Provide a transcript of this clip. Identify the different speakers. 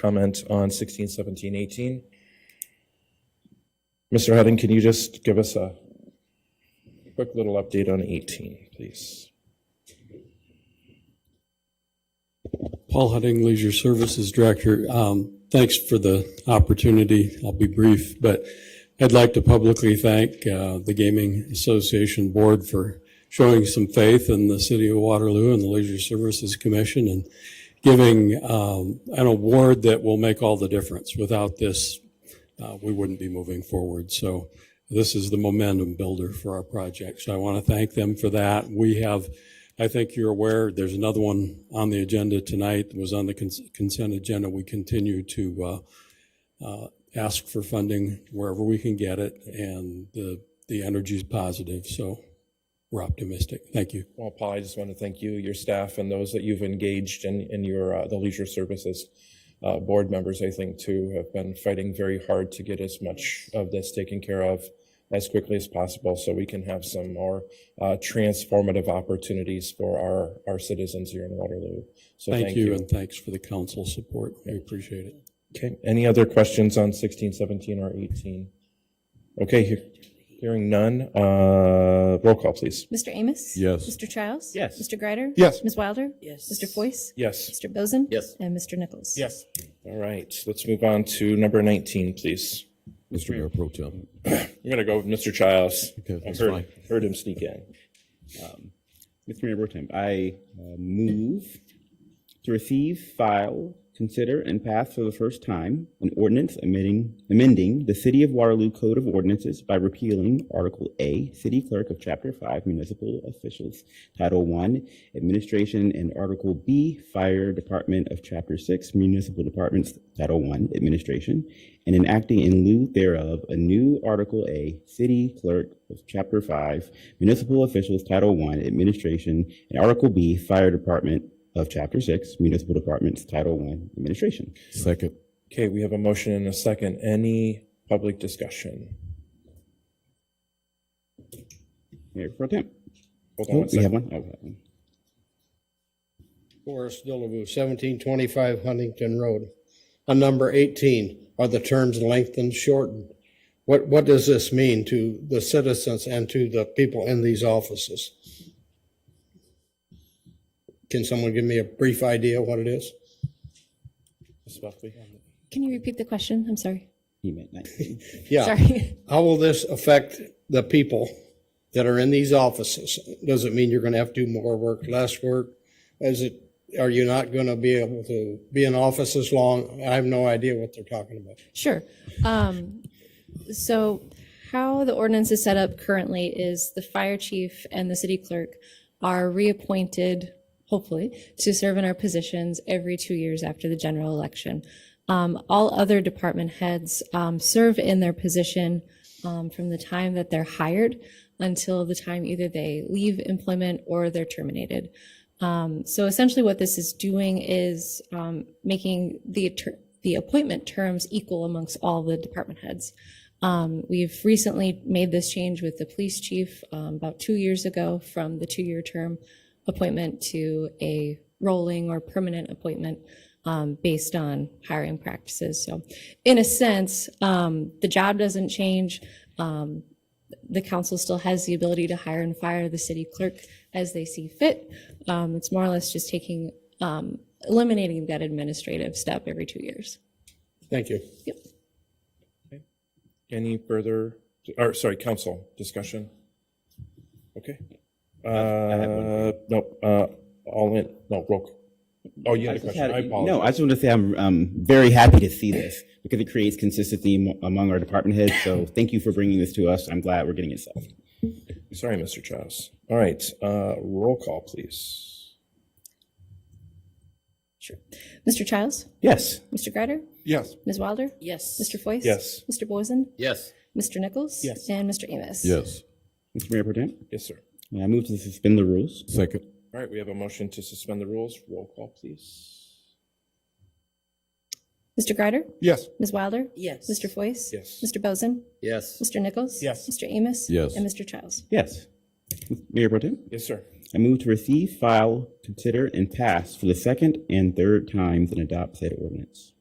Speaker 1: comment on 16, 17, 18. Mr. Hutton, can you just give us a quick little update on 18, please?
Speaker 2: Paul Hudding, Leisure Services Director. Um, Thanks for the opportunity. I'll be brief, but I'd like to publicly thank uh, the Gaming Association Board for showing some faith in the City of Waterloo and the Leisure Services Commission and giving um, an award that will make all the difference. Without this, uh, we wouldn't be moving forward. So this is the momentum builder for our project. So I want to thank them for that. We have, I think you're aware, there's another one on the agenda tonight, that was on the cons- consent agenda. We continue to uh, uh, ask for funding wherever we can get it, and the, the energy is positive, so we're optimistic. Thank you.
Speaker 1: Well, Paul, I just want to thank you, your staff, and those that you've engaged in, in your, uh, the Leisure Services uh, Board members, I think, too, have been fighting very hard to get as much of this taken care of as quickly as possible so we can have some more uh, transformative opportunities for our, our citizens here in Waterloo. So
Speaker 2: Thank you, and thanks for the council support. We appreciate it.
Speaker 1: Okay, any other questions on 16, 17, or 18? Okay, he- hearing none, uh, roll call, please.
Speaker 3: Mr. Amos?
Speaker 4: Yes.
Speaker 3: Mr. Childs?
Speaker 1: Yes.
Speaker 3: Mr. Greider?
Speaker 4: Yes.
Speaker 3: Ms. Wilder? Yes. Mr. Foyce?
Speaker 1: Yes,
Speaker 3: Mr. Bozen?
Speaker 4: Yes.
Speaker 3: And Mr. Nichols?
Speaker 4: Yes.
Speaker 1: all right, let's move on to number 19, please.
Speaker 4: Mr. Mayor Pro Tem.
Speaker 1: I'm gonna go with Mr. Childs.
Speaker 4: Okay,
Speaker 1: I
Speaker 4: that's fine.
Speaker 1: heard, heard him sneak in.
Speaker 5: Mr. Mayor Pro Tem, I uh, move to receive, file, consider, and pass for the first time an ordinance amending, amending the City of Waterloo Code of Ordinances by repealing Article A, City Clerk of Chapter Five Municipal Officials, Title One, Administration, and Article B, Fire Department of Chapter Six Municipal Departments, Title One, Administration, and enacting in lieu thereof a new Article A, City Clerk of Chapter Five Municipal Officials, Title One, Administration, and Article B, Fire Department of Chapter Six, Municipal Departments, Title One, Administration.
Speaker 4: Second.
Speaker 1: Okay, we have a motion and a second. Any public discussion?
Speaker 5: Mayor Pro Tem.
Speaker 1: Hold on
Speaker 5: Oh,
Speaker 1: one
Speaker 5: we
Speaker 1: second.
Speaker 5: have one? Oh, we have one.
Speaker 6: Forrest Dillaboo, seventeen twenty-five Huntington Road. On number eighteen, are the terms lengthened, shortened? What, what does this mean to the citizens and to the people in these offices? Can someone give me a brief idea what it is?
Speaker 1: Ms. Buckley?
Speaker 3: Can you repeat the question? I'm sorry.
Speaker 5: He meant nineteen.
Speaker 6: Yeah,
Speaker 3: Sorry.
Speaker 6: how will this affect the people that are in these offices? Does it mean you're gonna have to do more work, less work? Is it, are you not gonna be able to be in office as long? I have no idea what they're talking about.
Speaker 3: Sure. Um, so how the ordinance is set up currently is the fire chief and the city clerk are reappointed, hopefully, to serve in our positions every two years after the general election. Um, all other department heads, um, serve in their position, um, from the time that they're hired until the time either they leave employment or they're terminated. Um, so essentially what this is doing is, um, making the, atter- the appointment terms equal amongst all the department heads. Um, we've recently made this change with the police chief, um, about two years ago from the two-year term appointment to a rolling or permanent appointment um, based on hiring practices. So, in a sense, um, the job doesn't change. Um, the council still has the ability to hire and fire the city clerk as they see fit. Um, it's more or less just taking, um, eliminating that administrative step every two years.
Speaker 6: Thank you.
Speaker 1: Any further, or sorry, council discussion? Okay. Uh, no, uh, all in, no, roll. call. Oh, you had a
Speaker 5: just
Speaker 1: question. I
Speaker 5: had-
Speaker 1: apologize.
Speaker 5: No, I just want to say I'm um, very happy to see this because it creates consistency am- among our department heads. So thank you for bringing this to us. I'm glad we're getting it solved.
Speaker 1: Sorry, Mr. Childs. All right, uh, roll call, please.
Speaker 3: Sure. Mr. Childs?
Speaker 5: Yes.
Speaker 3: Mr. Greider?
Speaker 4: Yes.
Speaker 3: Ms. Wilder?
Speaker 7: Yes.
Speaker 3: Mr. Foyce?
Speaker 1: Yes.
Speaker 3: Mr. Boisen?
Speaker 7: Yes.
Speaker 3: Mr. Nichols?
Speaker 5: Yes.
Speaker 3: And Mr. Amos?
Speaker 4: Yes.
Speaker 5: Mr. Mayor Pro Tem,
Speaker 1: Yes, sir.
Speaker 5: may I move to suspend the rules.
Speaker 4: Second.
Speaker 1: All right, we have a motion to suspend the rules. Roll call, please.
Speaker 3: Mr. Greider?
Speaker 4: Yes.
Speaker 3: Ms. Wilder?
Speaker 7: Yes.
Speaker 3: Mr. Foyce?
Speaker 1: Yes.
Speaker 3: Mr. Bozen?
Speaker 7: Yes.
Speaker 3: Mr. Nichols?
Speaker 5: Yes.
Speaker 3: Mr. Amos?
Speaker 4: Yes.
Speaker 3: And Mr. Childs?
Speaker 5: Yes. Mayor Pro Tem,
Speaker 1: Yes, sir.
Speaker 5: I move to receive, file, consider, and pass for the second and third times and adopt said ordinance.